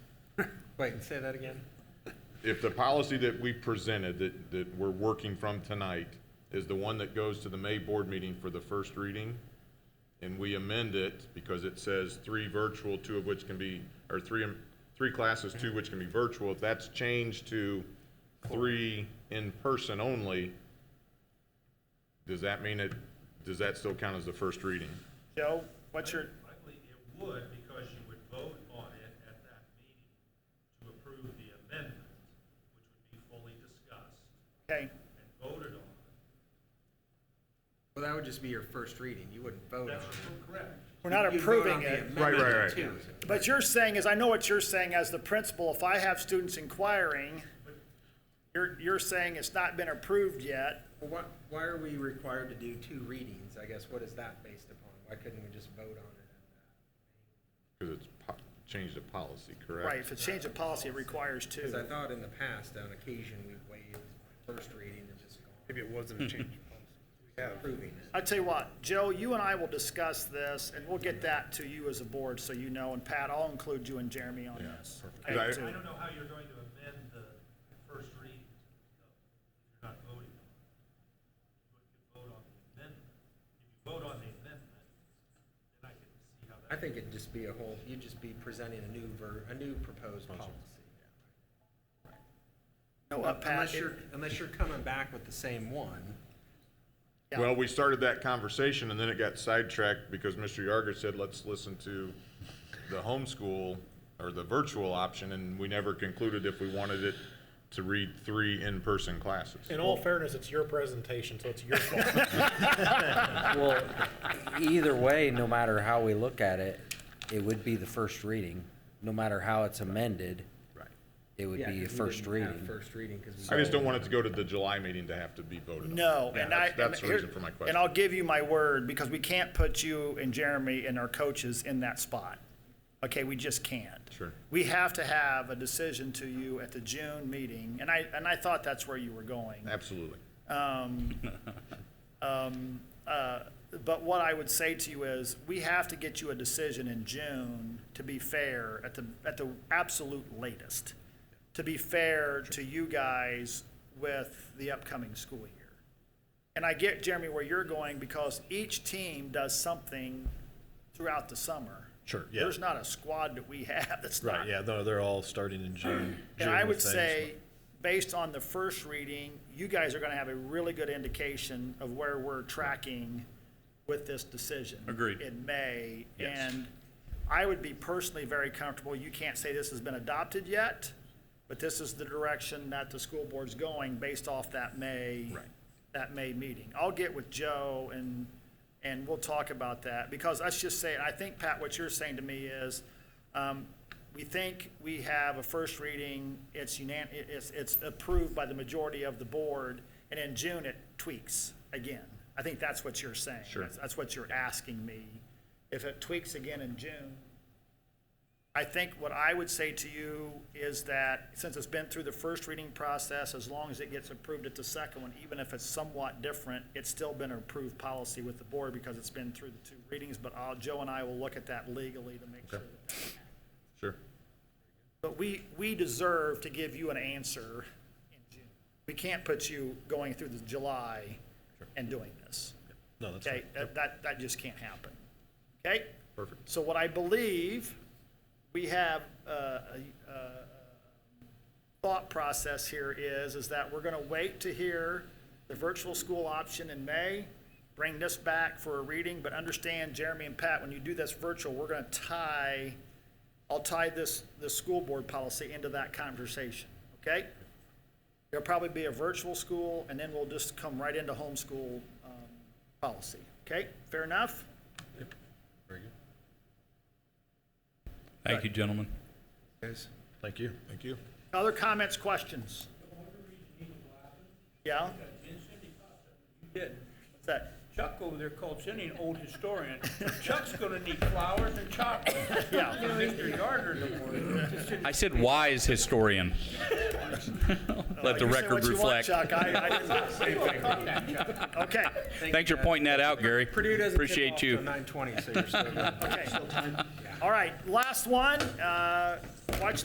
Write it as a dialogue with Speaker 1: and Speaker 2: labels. Speaker 1: Wait, say that again?
Speaker 2: If the policy that we presented, that, that we're working from tonight, is the one that goes to the May board meeting for the first reading, and we amend it because it says three virtual, two of which can be, or three, three classes, two which can be virtual, if that's changed to three in person only, does that mean it, does that still count as the first reading?
Speaker 3: Joe, what's your,
Speaker 4: I believe it would, because you would vote on it at that meeting to approve the amendment, which would be fully discussed
Speaker 3: okay,
Speaker 4: and voted on.
Speaker 1: Well, that would just be your first reading. You wouldn't vote on it.
Speaker 4: That's correct.
Speaker 3: we're not
Speaker 1: You'd vote on
Speaker 3: approving
Speaker 1: the
Speaker 3: it.
Speaker 2: Right, right,
Speaker 1: amendment
Speaker 2: right.
Speaker 1: too.
Speaker 3: But you're saying is, I know what you're saying as the principal, if I have students inquiring, you're, you're saying it's not been approved yet.
Speaker 1: Well, why, why are we required to do two readings? I guess what is that based upon? Why couldn't we just vote on it?
Speaker 2: Because it's po- changed the policy, correct?
Speaker 3: Right, if it's change of policy, it requires two.
Speaker 1: Because I thought in the past, on occasion, we waived first reading and just gone
Speaker 5: Maybe it wasn't a change of policy.
Speaker 1: approving it.
Speaker 3: I tell you what, Joe, you and I will discuss this, and we'll get that to you as a board, so you know, and Pat, I'll include you and Jeremy on this.
Speaker 2: Yeah, perfect.
Speaker 3: Okay,
Speaker 4: I
Speaker 3: too.
Speaker 4: don't know how you're going to amend the first reading, though, if you're not voting on it. But if you vote on the amendment, if you vote on the amendment, then I can see how
Speaker 1: I
Speaker 4: that.
Speaker 1: think it'd just be a whole, you'd just be presenting a new ver, a new proposed policy.
Speaker 3: No, uh, Pat,
Speaker 1: Unless
Speaker 3: it-
Speaker 1: you're, unless you're coming back with the same one.
Speaker 3: Yeah.
Speaker 2: Well, we started that conversation and then it got sidetracked because Mr. Yarger said, let's listen to the homeschool or the virtual option, and we never concluded if we wanted it to read three in-person classes.
Speaker 6: In all fairness, it's your presentation, so it's your fault.
Speaker 7: Well, either way, no matter how we look at it, it would be the first reading. No matter how it's amended,
Speaker 2: Right.
Speaker 7: it would
Speaker 1: Yeah,
Speaker 7: be a
Speaker 1: 'cause we
Speaker 7: first
Speaker 1: didn't have
Speaker 7: reading.
Speaker 1: First reading, because we.
Speaker 2: I just don't want it to go to the July meeting to have to be voted on.
Speaker 3: no,
Speaker 2: Yeah,
Speaker 3: and I.
Speaker 2: that's- That's the
Speaker 3: here-
Speaker 2: reason for my question.
Speaker 3: And I'll give you my word, because we can't put you and Jeremy and our coaches in that spot. Okay, we just can't.
Speaker 2: Sure.
Speaker 3: We have to have a decision to you at the June meeting, and I, and I thought that's where you were going.
Speaker 2: Absolutely.
Speaker 3: uh, But what I would say to you is, we have to get you a decision in June, to be fair, at the, at the absolute latest. To be fair to you guys with the upcoming school year. And I get, Jeremy, where you're going, because each team does something throughout the summer.
Speaker 5: Sure, yeah.
Speaker 3: There's not a squad that we have that's not.
Speaker 5: Right, yeah, no, they're all starting in June.
Speaker 3: And I
Speaker 5: June
Speaker 3: would
Speaker 5: with things.
Speaker 3: say, based on the first reading, you guys are gonna have a really good indication of where we're tracking with this decision.
Speaker 8: Agreed.
Speaker 3: In May, and I would be personally very comfortable, you can't say this has been adopted yet, but this is the direction that the school board's going based off that May. That May meeting. I'll get with Joe and, and we'll talk about that, because let's just say, I think, Pat, what you're saying to me is, um, we think we have a first reading, it's unan, it- it's, it's approved by the majority of the board, and in June it tweaks again. I think that's what you're saying. Sure. That's what you're asking me. If it tweaks again in June, I think what I would say to you is that since it's been through the first reading process, as long as it gets approved at the second one, even if it's somewhat different, it's still been an approved policy with the board because it's been through the two readings, but i Joe and I will look at that legally to make sure that
Speaker 2: Sure.
Speaker 3: but we, we deserve to give you an answer in June. We can't put you going through the July and doing this.
Speaker 5: No, that's
Speaker 3: Okay,
Speaker 5: fine.
Speaker 3: that, that, that just can't happen. Okay?
Speaker 2: Perfect.
Speaker 3: So what I believe, we have uh, a, a thought process here is, is that we're gonna wait to hear the virtual school option in May, bring this back for a reading, but understand, Jeremy and Pat, when you do this virtual, we're gonna tie, I'll tie this, this school board policy into that conversation, okay? There'll probably be a virtual school, and then we'll just come right into homeschool, um, policy, okay? Fair enough?
Speaker 8: Thank you, gentlemen.
Speaker 5: Thank you.
Speaker 2: Thank you.
Speaker 3: Other comments, questions? Yeah?
Speaker 9: did.
Speaker 3: What's that?
Speaker 9: Chuck over there called Cindy an old historian. Chuck's gonna need flowers and chocolate.
Speaker 3: Yeah.
Speaker 9: You know, Mr. Yarder no more. Just sit-
Speaker 8: I said wise historian. Let the
Speaker 3: You say
Speaker 8: record
Speaker 3: what you want,
Speaker 8: reflect.
Speaker 3: Chuck. I- I didn't- Okay,
Speaker 8: Thanks for pointing that out, Gary.
Speaker 1: Purdue doesn't tip
Speaker 8: Appreciate
Speaker 1: off
Speaker 8: you.
Speaker 1: till 9:20, so you're still good.
Speaker 3: okay. All right, last one. Uh, Watch